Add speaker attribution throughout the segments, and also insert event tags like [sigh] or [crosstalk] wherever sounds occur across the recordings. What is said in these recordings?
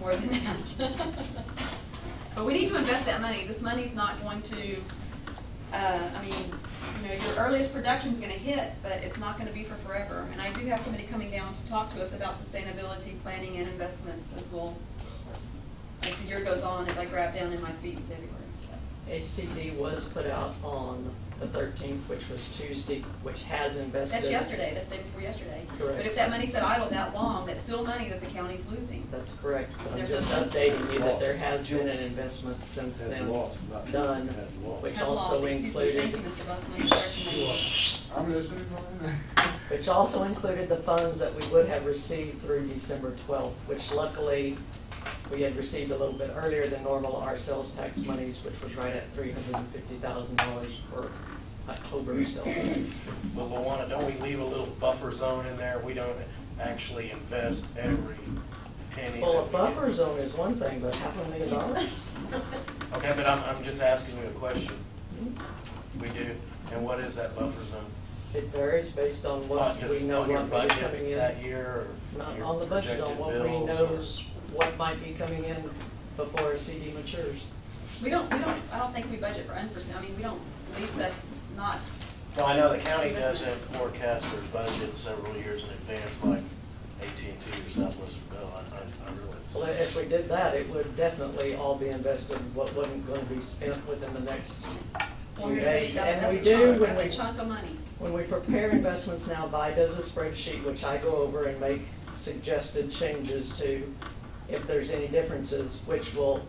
Speaker 1: more than that. [laughs] But we need to invest that money. This money's not going to, uh, I mean, you know, your earliest production's gonna hit, but it's not gonna be for forever. And I do have somebody coming down to talk to us about sustainability planning and investments as well. As the year goes on, as I grab down in my feet in February, so.
Speaker 2: A CD was put out on the thirteenth, which was Tuesday, which has invested.
Speaker 1: That's yesterday, that's day before yesterday. But if
Speaker 2: Correct.
Speaker 1: that money sat idle that long, that's still money that the county's losing.
Speaker 2: That's correct, but I'm
Speaker 1: There's
Speaker 2: just
Speaker 1: no sense.
Speaker 2: updating you that there
Speaker 3: Lost.
Speaker 2: has been an investment since
Speaker 3: Has
Speaker 2: then
Speaker 3: lost, not-
Speaker 2: done,
Speaker 3: has lost.
Speaker 2: which
Speaker 1: Has
Speaker 2: also
Speaker 1: lost, excuse me, thank you,
Speaker 2: included,
Speaker 1: Mr. Busman, for recommending.
Speaker 3: I'm listening, Brian.
Speaker 2: which also included the funds that we would have received through December twelfth, which luckily we had received a little bit earlier than normal, our sales tax monies, which was right at three hundred and fifty thousand dollars for October sales
Speaker 1: [laughs]
Speaker 2: tax.
Speaker 4: Well, Luana, don't we leave a little buffer zone in there? We don't actually invest every penny.
Speaker 2: Well, a
Speaker 4: that we
Speaker 2: buffer
Speaker 4: get.
Speaker 2: zone is one thing, but half a million dollars?
Speaker 1: [laughs]
Speaker 4: Okay, but I'm, I'm just asking you a question. We do, and what is that buffer zone?
Speaker 2: It varies based on
Speaker 4: On
Speaker 2: what
Speaker 4: your-
Speaker 2: we know
Speaker 4: on your
Speaker 2: what might be
Speaker 4: budget
Speaker 2: coming in.
Speaker 4: That year or
Speaker 2: Not
Speaker 4: your
Speaker 2: on the budget, on
Speaker 4: projected
Speaker 2: what we
Speaker 4: bills
Speaker 2: know
Speaker 4: or?
Speaker 2: is what might be coming in before a CD matures.
Speaker 1: We don't, we don't, I don't think we budget for unforeseen, I mean, we don't leave stuff not,
Speaker 4: Well, I know the county doesn't forecast their budget several years in advance like AT&T or Southwestern Bell. I, I- I
Speaker 2: Well,
Speaker 4: realize.
Speaker 2: if we did that, it would definitely all be invested, what wasn't going to be spent within the next
Speaker 1: well,
Speaker 2: few
Speaker 1: that's
Speaker 2: days. And we
Speaker 1: a
Speaker 2: do
Speaker 1: chunk,
Speaker 2: when
Speaker 1: that's a
Speaker 2: we,
Speaker 1: chunk of money.
Speaker 2: when we prepare investments now, Vi does a spreadsheet, which I go over and make suggested changes to if there's any differences, which will,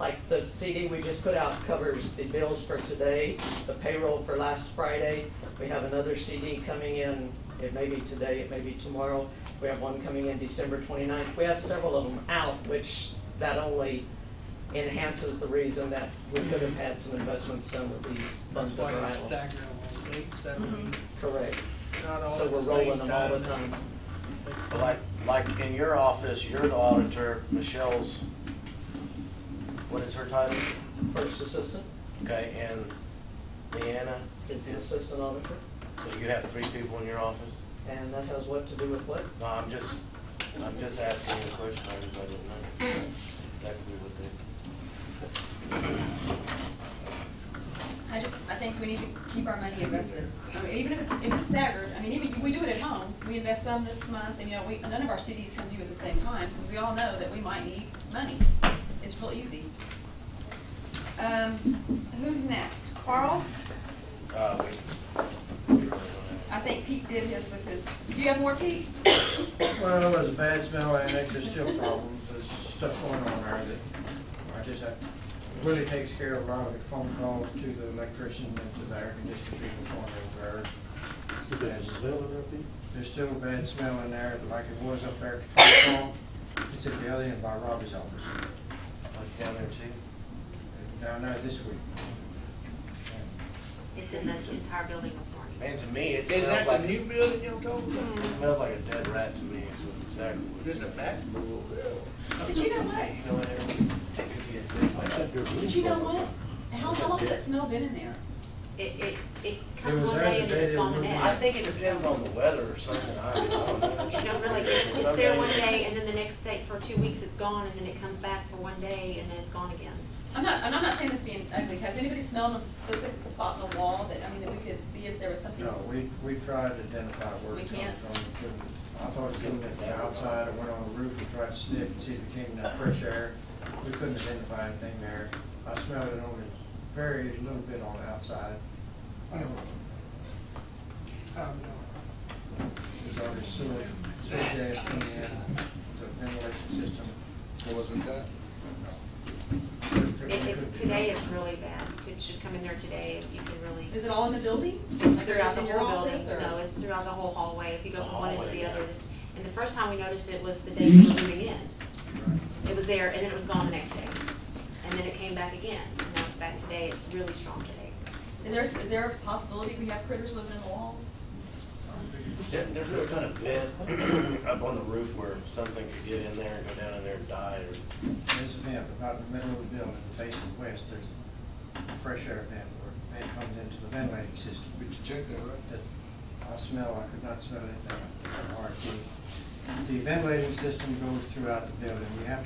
Speaker 2: like the CD we just put out covers the bills for today, the payroll for last Friday. We have another CD coming in, it may be today, it may be tomorrow. We have one coming in December 29th. We have several of them out, which that only enhances the reason that we could have had some investments done with these
Speaker 5: That's
Speaker 2: funds that
Speaker 5: why
Speaker 2: are
Speaker 5: you're
Speaker 2: idle.
Speaker 5: staggering them on eight, seven,
Speaker 2: Correct.
Speaker 5: eight, not all
Speaker 2: So
Speaker 5: at
Speaker 2: we're
Speaker 5: the same
Speaker 2: rolling them all the
Speaker 5: time.
Speaker 2: time.
Speaker 4: But Like, like in your office, you're the auditor, Michelle's, what is her title?
Speaker 2: First assistant
Speaker 4: Okay, and Leanna?
Speaker 2: is the assistant auditor,
Speaker 4: So you have three people in your office?
Speaker 2: and that has what to do with what?
Speaker 4: No, I'm just, I'm just asking you a question, I guess I didn't know. That could be what they,
Speaker 1: I just, I think we need to keep our money invested. I mean, even if it's, if it's staggered, I mean, even, we do it at home, we invest some this month, and you know, we, none of our CDs come due at the same time, because we all know that we might need money. It's real easy. Um, who's next? Carl?
Speaker 4: uh, we, we really don't
Speaker 1: I think Pete did his with his, do you have more, Pete?
Speaker 6: Well, as bad as Mel Annex, there's still problems, there's stuff going on there that, I just have, Willie takes care of a lot of the phone calls to the electrician and to the air conditioning people over there. And There's still a bad smell in there, like it was up there at the phone call, it's at the other end by Robbie's office,
Speaker 4: have. What's down there too?
Speaker 6: down there this week.
Speaker 7: It's in the entire building this morning.
Speaker 4: Man, to me, it
Speaker 5: Is that
Speaker 4: smelled
Speaker 5: the
Speaker 4: like,
Speaker 5: new building you're talking about?
Speaker 4: it smelled like a dead rat to me, is what exactly what it
Speaker 5: There's a
Speaker 4: smelled.
Speaker 5: back door over there.
Speaker 1: But you know what?
Speaker 4: Hey, you know what, everyone, take it to your face like that.
Speaker 1: But you know what? How long has that smell been in there?
Speaker 7: It, it, it
Speaker 6: It
Speaker 7: comes
Speaker 6: was
Speaker 7: one
Speaker 6: there
Speaker 7: day and
Speaker 6: the
Speaker 7: then
Speaker 6: day
Speaker 7: it's
Speaker 6: they
Speaker 7: gone
Speaker 6: were
Speaker 7: the
Speaker 6: moving.
Speaker 7: next.
Speaker 4: I think it depends on the weather or something, I don't know.
Speaker 7: [laughs] You know, really,
Speaker 4: Some
Speaker 7: it's there one
Speaker 4: days-
Speaker 7: day and then the next day, for two weeks it's gone and then it comes back for one day and then it's gone again.
Speaker 1: I'm not, and I'm not saying this being ugly, has anybody smelled a specific spot in the wall that, I mean, that we could see if there was something?
Speaker 6: No, we, we tried to identify where
Speaker 1: We
Speaker 6: it comes
Speaker 1: can't.
Speaker 6: from. We couldn't. I thought it came from the outside, I went on the roof and tried to sniff and see if it came in that fresh air. We couldn't identify anything there. I smelled it only very little bit on the outside. I don't know.
Speaker 5: I don't know.
Speaker 6: There's already sewer, sewer gas coming in, the ventilation system.
Speaker 3: Wasn't that?
Speaker 6: Couldn't-
Speaker 7: It
Speaker 6: couldn't
Speaker 7: is,
Speaker 6: be
Speaker 7: today
Speaker 6: done.
Speaker 7: it's really bad. It should come in there today if you can really.
Speaker 1: Is it all in the building?
Speaker 7: It's
Speaker 1: Like, or
Speaker 7: throughout
Speaker 1: just
Speaker 7: the
Speaker 1: in your
Speaker 7: whole building,
Speaker 1: office, or-
Speaker 7: no, it's throughout the whole hallway, if you go
Speaker 4: It's a
Speaker 7: from one end to
Speaker 4: hallway,
Speaker 7: the other.
Speaker 4: yeah.
Speaker 7: it's- And the first time we noticed it was the day we were moving in. It was there, and then it was gone the next day. And then it came back again, and now it's back today, it's really strong today.
Speaker 1: Is there, is there a possibility we have critters living in the walls?
Speaker 4: There, there's no kind of vent [clears throat] up on the roof where something could get in there and go down in there and die or,
Speaker 6: There's a vent about in the middle of the building, facing west, there's a fresh air vent where it comes into the ventilating system.
Speaker 3: But you checked that, right?
Speaker 6: that I smell, I could not smell anything. All right, the- The ventilating system goes throughout the building. You have to